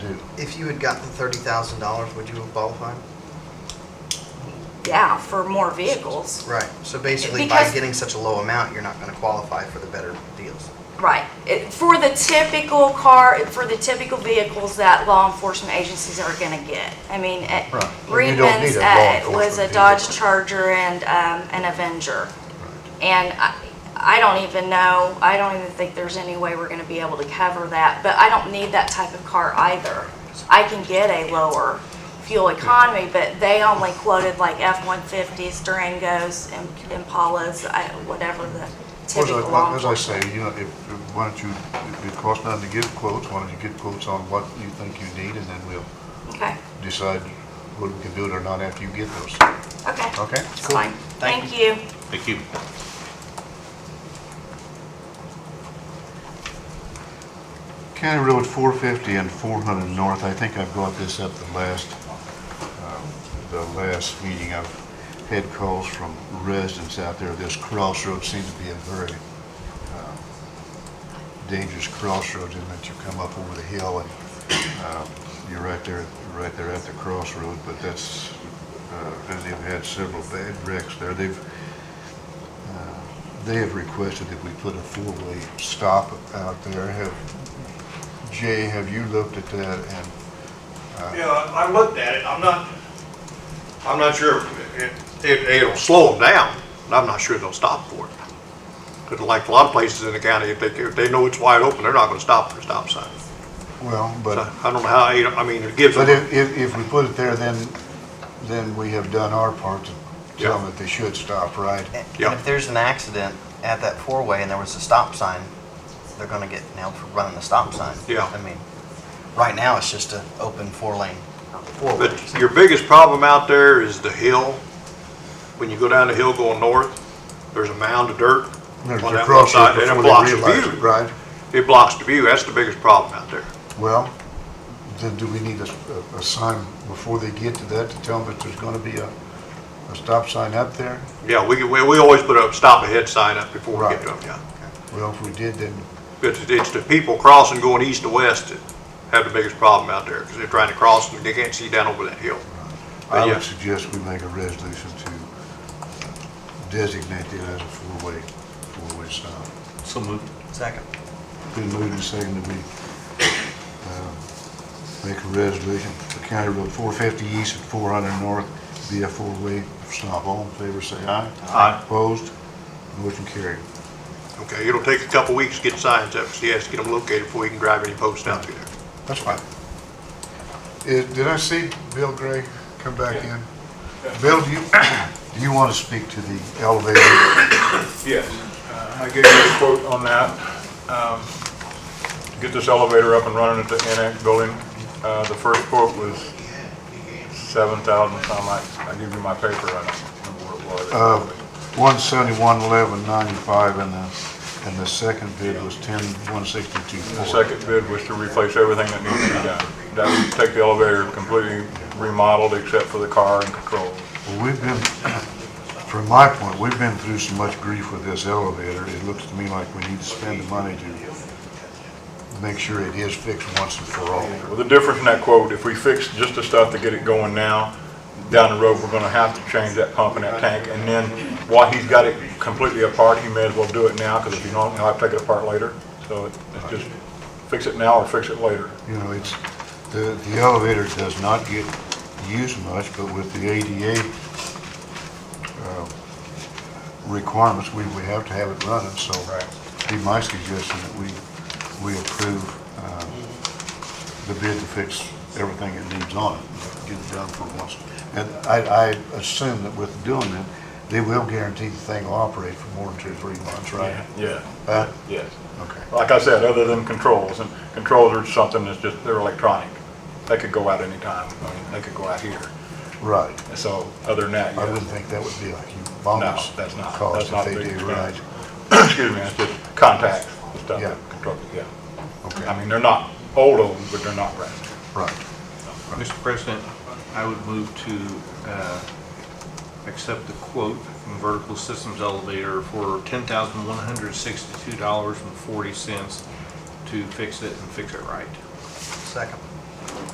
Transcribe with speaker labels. Speaker 1: if you had gotten thirty thousand dollars, would you have qualified?
Speaker 2: Yeah, for more vehicles,
Speaker 1: Right, so basically by
Speaker 2: Because-
Speaker 1: getting such a low amount, you're not gonna qualify for the better deals.
Speaker 2: right. It- For the typical car, for the typical vehicles that law enforcement agencies are gonna get. I mean, at
Speaker 3: Right. And you don't
Speaker 2: Reedman's
Speaker 3: need a law
Speaker 2: uh, was a
Speaker 3: enforcement
Speaker 2: Dodge
Speaker 3: vehicle.
Speaker 2: Charger and um, an Avenger. And I, I don't even know, I don't even think there's any way we're gonna be able to cover that, but I don't need that type of car either. I can get a lower fuel economy, but they only quoted like F-150s, Durangos, and Impalas, I- whatever the
Speaker 3: As
Speaker 2: typical
Speaker 3: I,
Speaker 2: law
Speaker 3: as I
Speaker 2: enforcement.
Speaker 3: say, you know, if, if- why don't you, if it costs nothing to give quotes, why don't you get quotes on what you think you need, and then we'll
Speaker 2: Okay,
Speaker 3: decide whether we can do it or not after you get those,
Speaker 2: okay,
Speaker 3: okay?
Speaker 2: it's fine.
Speaker 1: Thank
Speaker 2: Thank you.
Speaker 4: Thank you.
Speaker 3: County Road 450 and 400 North, I think I brought this up the last, um, the last meeting. I've had calls from residents out there. This crossroad seems to be a very um, dangerous crossroads in that you come up over the hill and um, you're right there, right there at the crossroad, but that's, uh, and they've had several bad wrecks there. They've, uh, they have requested that we put a four-way stop out there. Have Jay, have you looked at that and,
Speaker 5: Yeah, I I looked at it, I'm not, I'm not sure if, it- it- it'll slow them down, and I'm not sure they'll stop for it. 'Cause like a lot of places in the county, if they, if they know it's wide open, they're not gonna stop for a stop sign.
Speaker 3: well,
Speaker 5: But
Speaker 3: but,
Speaker 5: I don't know how, you know, I mean, it gives
Speaker 3: but
Speaker 5: them,
Speaker 3: if, if, if we put it there, then, then we have done our part to tell them that they should stop, right?
Speaker 1: And
Speaker 5: Yeah.
Speaker 1: and if there's an accident at that four-way and there was a stop sign, they're gonna get nailed for running the stop sign.
Speaker 5: Yeah.
Speaker 1: I mean, right now, it's just an open four-lane, four-way.
Speaker 5: but your biggest problem out there is the hill. When you go down the hill going north, there's a mound of dirt
Speaker 3: There's
Speaker 5: on
Speaker 3: a
Speaker 5: that one
Speaker 3: crossroad
Speaker 5: side, and
Speaker 3: before
Speaker 5: it
Speaker 3: they
Speaker 5: blocks the
Speaker 3: realize it,
Speaker 5: view.
Speaker 3: right?
Speaker 5: It blocks the view, that's the biggest problem out there.
Speaker 3: Well, then do we need a, a- a sign before they get to that to tell them that there's gonna be a, a stop sign up there?
Speaker 5: Yeah, we, we we always put a stop ahead sign up before we get to them, yeah.
Speaker 3: Well, if we did, then,
Speaker 5: It's, it's the people crossing going east to west that have the biggest problem out there, because they're trying to cross and they can't see down over that hill.
Speaker 3: I
Speaker 5: yeah.
Speaker 3: would suggest we make a resolution to designate it as a four-way, four-way stop.
Speaker 4: So moved.
Speaker 1: Second.
Speaker 3: Been moved and seconded that we um, make a resolution for County Road 450 East and 400 North be a four-way stop. All in favor, say aye.
Speaker 4: Aye.
Speaker 3: Opposed? Motion carried.
Speaker 5: Okay, it'll take a couple weeks to get signs up, so he has to get them located before he can drive any posts down through there.
Speaker 3: That's fine. Is- Did I see Bill Gray come back in? Bill, do you, do you want to speak to the elevator?
Speaker 6: Yes, uh, I gave you a quote on that. Um, Get this elevator up and running at the annex building. Uh, The first quote was 7,000, something like, I give you my paper, I don't remember what it
Speaker 3: Uh,
Speaker 6: was.
Speaker 3: 171, 11, 95, and the, and the second bid was 10, 162.
Speaker 6: The second bid was to replace everything that needed to be done. That would take the elevator completely remodeled except for the car and controls.
Speaker 3: Well, we've been, from my point, we've been through so much grief with this elevator, it looks to me like we need to spend the money to make sure it is fixed once and for all.
Speaker 6: Well, the difference in that quote, if we fix just the stuff to get it going now, down the road, we're gonna have to change that pump and that tank, and then while he's got it completely apart, he may as well do it now, because if you don't, he'll have to take it apart later. So it- it's just fix it now or fix it later.
Speaker 3: You know, it's, the, the elevator does not get used much, but with the ADA uh, requirements, we, we have to have it running, so.
Speaker 6: Right.
Speaker 3: Be my suggestion that we, we approve uh, the bid to fix everything it needs on it, get it done for once. And I, I assume that with doing that, they will guarantee the thing will operate for more than two, three months, right?
Speaker 6: Yeah,
Speaker 3: Uh,
Speaker 6: yes.
Speaker 3: Okay.
Speaker 6: Like I said, other than controls, and controls are something that's just, they're electronic. They could go out anytime, I mean, they could go out here.
Speaker 3: Right.
Speaker 6: And So, other than that,
Speaker 3: I
Speaker 6: yeah.
Speaker 3: wouldn't think that would be a humongous
Speaker 6: No, that's not- that's
Speaker 3: cost if
Speaker 6: not
Speaker 3: they
Speaker 6: big
Speaker 3: do right.
Speaker 6: expense. excuse me, it's just contacts, and stuff,
Speaker 3: Yeah.
Speaker 6: that control, yeah.
Speaker 3: Okay.
Speaker 6: I mean, they're not old, old, but they're not brand new.
Speaker 3: Right.
Speaker 4: Mr. President, I would move to uh, accept the quote from Vertical Systems Elevator for $10,162.40 to fix it and fix it right.
Speaker 1: Second.